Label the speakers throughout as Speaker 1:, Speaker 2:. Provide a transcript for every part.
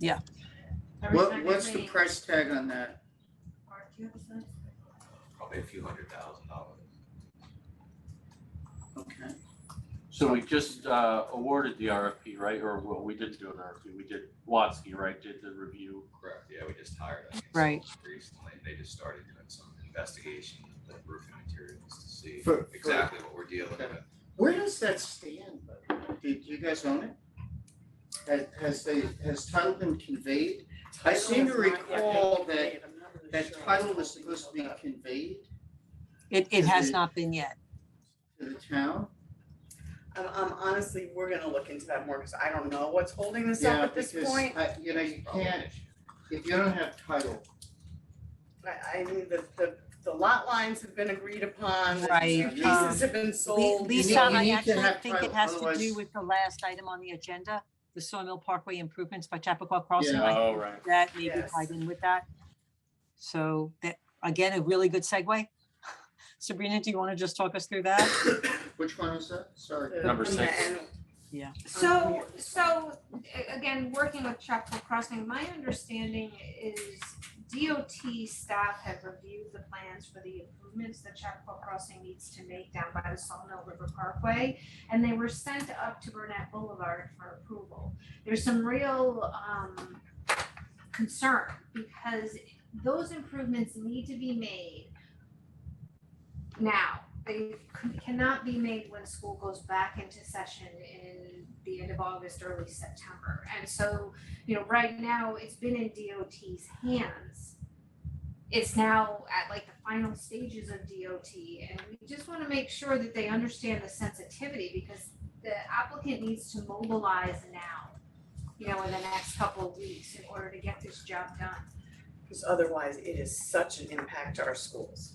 Speaker 1: Yeah.
Speaker 2: What, what's the price tag on that?
Speaker 3: probably a few hundred thousand dollars.
Speaker 2: Okay,
Speaker 4: So we just uh, awarded the RFP, right? Or well, we didn't do an RFP. We did Watsky, right? Did the review.
Speaker 3: Correct, yeah, we just hired. them
Speaker 1: Right.
Speaker 3: Recently, they just started doing some investigation of the roofing materials to see
Speaker 2: For- for-
Speaker 3: exactly what we're dealing with.
Speaker 2: where does that stand? by the way? Do, do you guys own it? Has, has they, has title been conveyed? I seem to recall that, that title was supposed to be conveyed
Speaker 1: It, it has not been yet.
Speaker 2: to the town.
Speaker 5: Um, um, honestly, we're gonna look into that more, cause I don't know what's holding this up
Speaker 2: Yeah,
Speaker 5: at this
Speaker 2: because,
Speaker 5: point.
Speaker 2: I- you know, you
Speaker 3: Probably an
Speaker 2: can't,
Speaker 3: issue.
Speaker 2: if you don't have title,
Speaker 5: I, I mean, the, the, the lot lines have been agreed upon. the
Speaker 1: Right, um,
Speaker 5: Leases have been
Speaker 1: Le-
Speaker 5: sold.
Speaker 1: Lisa,
Speaker 2: you need
Speaker 1: I
Speaker 2: to
Speaker 1: actually
Speaker 2: have
Speaker 1: think it
Speaker 2: title,
Speaker 1: has to do
Speaker 2: otherwise-
Speaker 1: with the last item on the agenda, the Sawmill Parkway improvements by Chappaqua Crossing.
Speaker 2: Yeah.
Speaker 1: I
Speaker 4: Oh, right.
Speaker 1: that maybe
Speaker 5: Yes.
Speaker 1: tied in with that. So that, again, a really good segue. Sabrina, do you want to just talk us through that?
Speaker 2: which one is that? Sorry.
Speaker 5: The-
Speaker 4: Number
Speaker 5: from the
Speaker 4: six.
Speaker 5: end. Um,
Speaker 6: So, so a- again, working with Chapel Crossing, my understanding is DOT staff have reviewed the plans for the improvements that Chapel Crossing needs to make down by the Sawmill River Parkway. And they were sent up to Burnett Boulevard for approval. There's some real um concern because those improvements need to be made now. They c- cannot be made when school goes back into session in the end of August, early September. And so, you know, right now, it's been in DOT's hands. It's now at like the final stages of DOT, and we just wanna make sure that they understand the sensitivity because the applicant needs to mobilize now, you know, in the next couple of weeks in order to get this job done.
Speaker 5: Cause otherwise it is such an impact to our schools.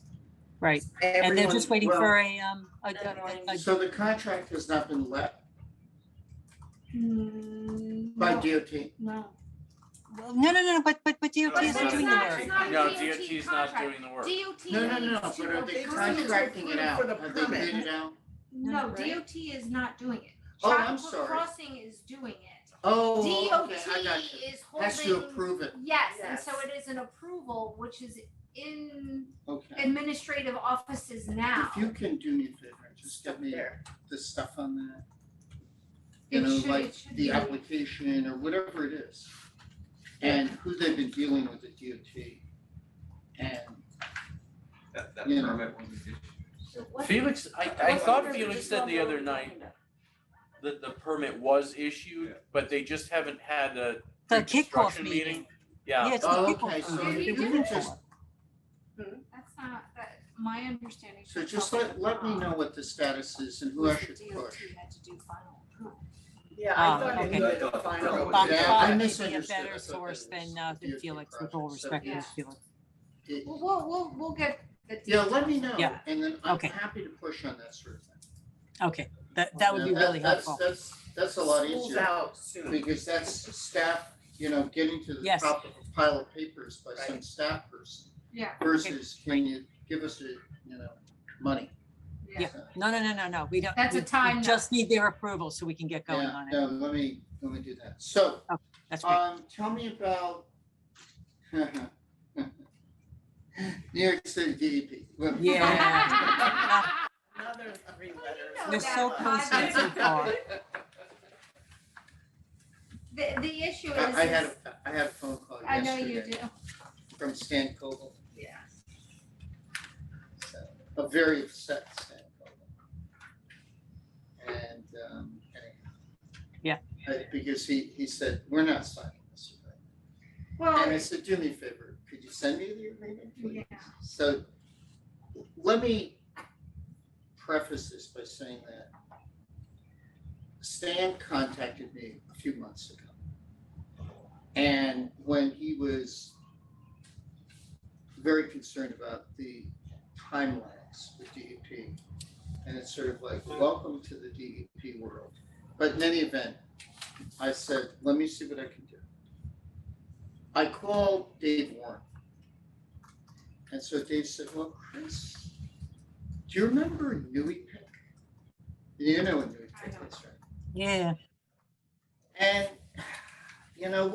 Speaker 1: Right, and they're just
Speaker 5: Everyone-
Speaker 1: waiting
Speaker 2: well-
Speaker 1: for a, um, a, a, a- a-
Speaker 2: So the contract has not been let
Speaker 6: Mm,
Speaker 2: by
Speaker 6: no,
Speaker 2: DOT?
Speaker 6: No.
Speaker 1: well, no, no, no, no, but, but, but DOT
Speaker 6: It's
Speaker 1: isn't
Speaker 6: not-
Speaker 1: doing the
Speaker 6: it's
Speaker 1: work.
Speaker 6: not a
Speaker 4: No,
Speaker 6: DOT
Speaker 4: DOT's not
Speaker 6: contract.
Speaker 4: doing the work.
Speaker 6: DOT
Speaker 2: No, no, no,
Speaker 6: needs to
Speaker 2: but are they
Speaker 6: approve
Speaker 5: contract-
Speaker 2: contracting it out?
Speaker 5: for the
Speaker 2: Have they
Speaker 5: permit.
Speaker 2: bid it out?
Speaker 6: No,
Speaker 5: Right?
Speaker 6: DOT is not doing it.
Speaker 2: Oh, I'm
Speaker 6: Chappaqua
Speaker 2: sorry.
Speaker 6: Crossing is doing it.
Speaker 2: Oh,
Speaker 6: DOT
Speaker 2: okay, I got you.
Speaker 6: is
Speaker 2: Has to
Speaker 6: holding,
Speaker 2: approve it,
Speaker 6: yes, and
Speaker 5: Yes.
Speaker 6: so it is an approval, which is in
Speaker 2: okay.
Speaker 6: administrative offices now.
Speaker 2: If you can do me a favor, just get me
Speaker 5: There.
Speaker 2: the stuff on that.
Speaker 6: It
Speaker 2: You know,
Speaker 6: should-
Speaker 2: like
Speaker 6: it should
Speaker 2: the
Speaker 6: be-
Speaker 2: application or whatever it is. And who they've been dealing with at DOT. And,
Speaker 3: That, that
Speaker 2: Yeah.
Speaker 3: permit was issued.
Speaker 6: So what-
Speaker 4: Felix, I, I
Speaker 3: What's
Speaker 4: thought
Speaker 3: the-
Speaker 4: Felix said the other night that the permit was issued,
Speaker 3: Yeah.
Speaker 4: but they just haven't had a
Speaker 1: The
Speaker 4: pre-construction
Speaker 1: kickoff meeting.
Speaker 4: Yeah,
Speaker 1: Yeah, it's
Speaker 2: Oh,
Speaker 1: the people.
Speaker 2: okay, so
Speaker 1: um,
Speaker 6: if you
Speaker 1: the
Speaker 6: can
Speaker 1: people.
Speaker 2: just-
Speaker 6: That's not, that, my understanding.
Speaker 2: so
Speaker 6: from
Speaker 2: just
Speaker 6: Chappaqua
Speaker 2: let, let me
Speaker 6: Crossing
Speaker 2: know what the status is and who I
Speaker 6: was
Speaker 2: should
Speaker 6: that
Speaker 2: push.
Speaker 6: DOT had to do final approval.
Speaker 5: Yeah,
Speaker 1: Ah,
Speaker 5: I thought it
Speaker 1: okay.
Speaker 5: needed a final.
Speaker 3: Bob-
Speaker 2: Yeah,
Speaker 1: Bob
Speaker 2: I
Speaker 1: may be a
Speaker 2: misunderstood. I
Speaker 1: better
Speaker 2: thought that
Speaker 1: source
Speaker 2: was
Speaker 1: than, uh, than
Speaker 2: DOT
Speaker 1: Felix, with
Speaker 2: project,
Speaker 1: all
Speaker 2: so
Speaker 1: respect to
Speaker 6: yeah.
Speaker 1: Felix.
Speaker 2: it-
Speaker 6: Well, we'll, we'll, we'll get the.
Speaker 2: Yeah,
Speaker 6: details.
Speaker 2: let me know,
Speaker 1: Yeah.
Speaker 2: and then I'm
Speaker 1: Okay.
Speaker 2: happy to push on that sort of thing.
Speaker 1: Okay, that, that would
Speaker 2: Yeah,
Speaker 1: be really
Speaker 2: that's-
Speaker 1: helpful.
Speaker 2: That's, that's a lot
Speaker 5: School's
Speaker 2: easier,
Speaker 5: out soon.
Speaker 2: because that's staff, you know, getting to the
Speaker 1: Yes.
Speaker 2: top of a pile of papers by some
Speaker 5: Right.
Speaker 2: staff person
Speaker 6: Yeah,
Speaker 2: versus can you give us a, you know, money?
Speaker 6: yeah.
Speaker 2: So,
Speaker 1: No, no, no, no, no, we don't.
Speaker 6: That's a
Speaker 1: we- we
Speaker 6: time
Speaker 1: Just need their approval so we can get going
Speaker 2: Yeah,
Speaker 1: on it.
Speaker 2: no, let me, let me do that. So,
Speaker 1: That's great.
Speaker 2: um, tell me about New York City DEP. Well,
Speaker 1: Yeah.
Speaker 5: Another three letters.
Speaker 6: know
Speaker 1: You're so
Speaker 6: that,
Speaker 1: close
Speaker 6: Bob.
Speaker 1: yet so far.
Speaker 6: The, the issue is.
Speaker 2: I I had, a I had a phone call
Speaker 6: I know you
Speaker 2: yesterday
Speaker 6: do,
Speaker 2: from Stan Koble.
Speaker 6: yeah.
Speaker 2: so, a very upset Stan Coble. And, um, anyhow.
Speaker 1: Yeah.
Speaker 2: Uh, Because he, he said, we're not signing this agreement. And I
Speaker 6: Well,
Speaker 2: said, do me a favor, could you send me the agreement, please?
Speaker 6: Oh. yeah.
Speaker 2: So let me preface this by saying that Stan contacted me a few months ago. And when he was very concerned about the timelines with DEP, and it's sort of like, welcome to the DEP world. But in any event, I said, let me see what I can do. I called Dave Warren. And so Dave said, well, Chris, do you remember Nui Pick? You know what Nui Pick is, right?
Speaker 1: Yeah.
Speaker 2: And, you know,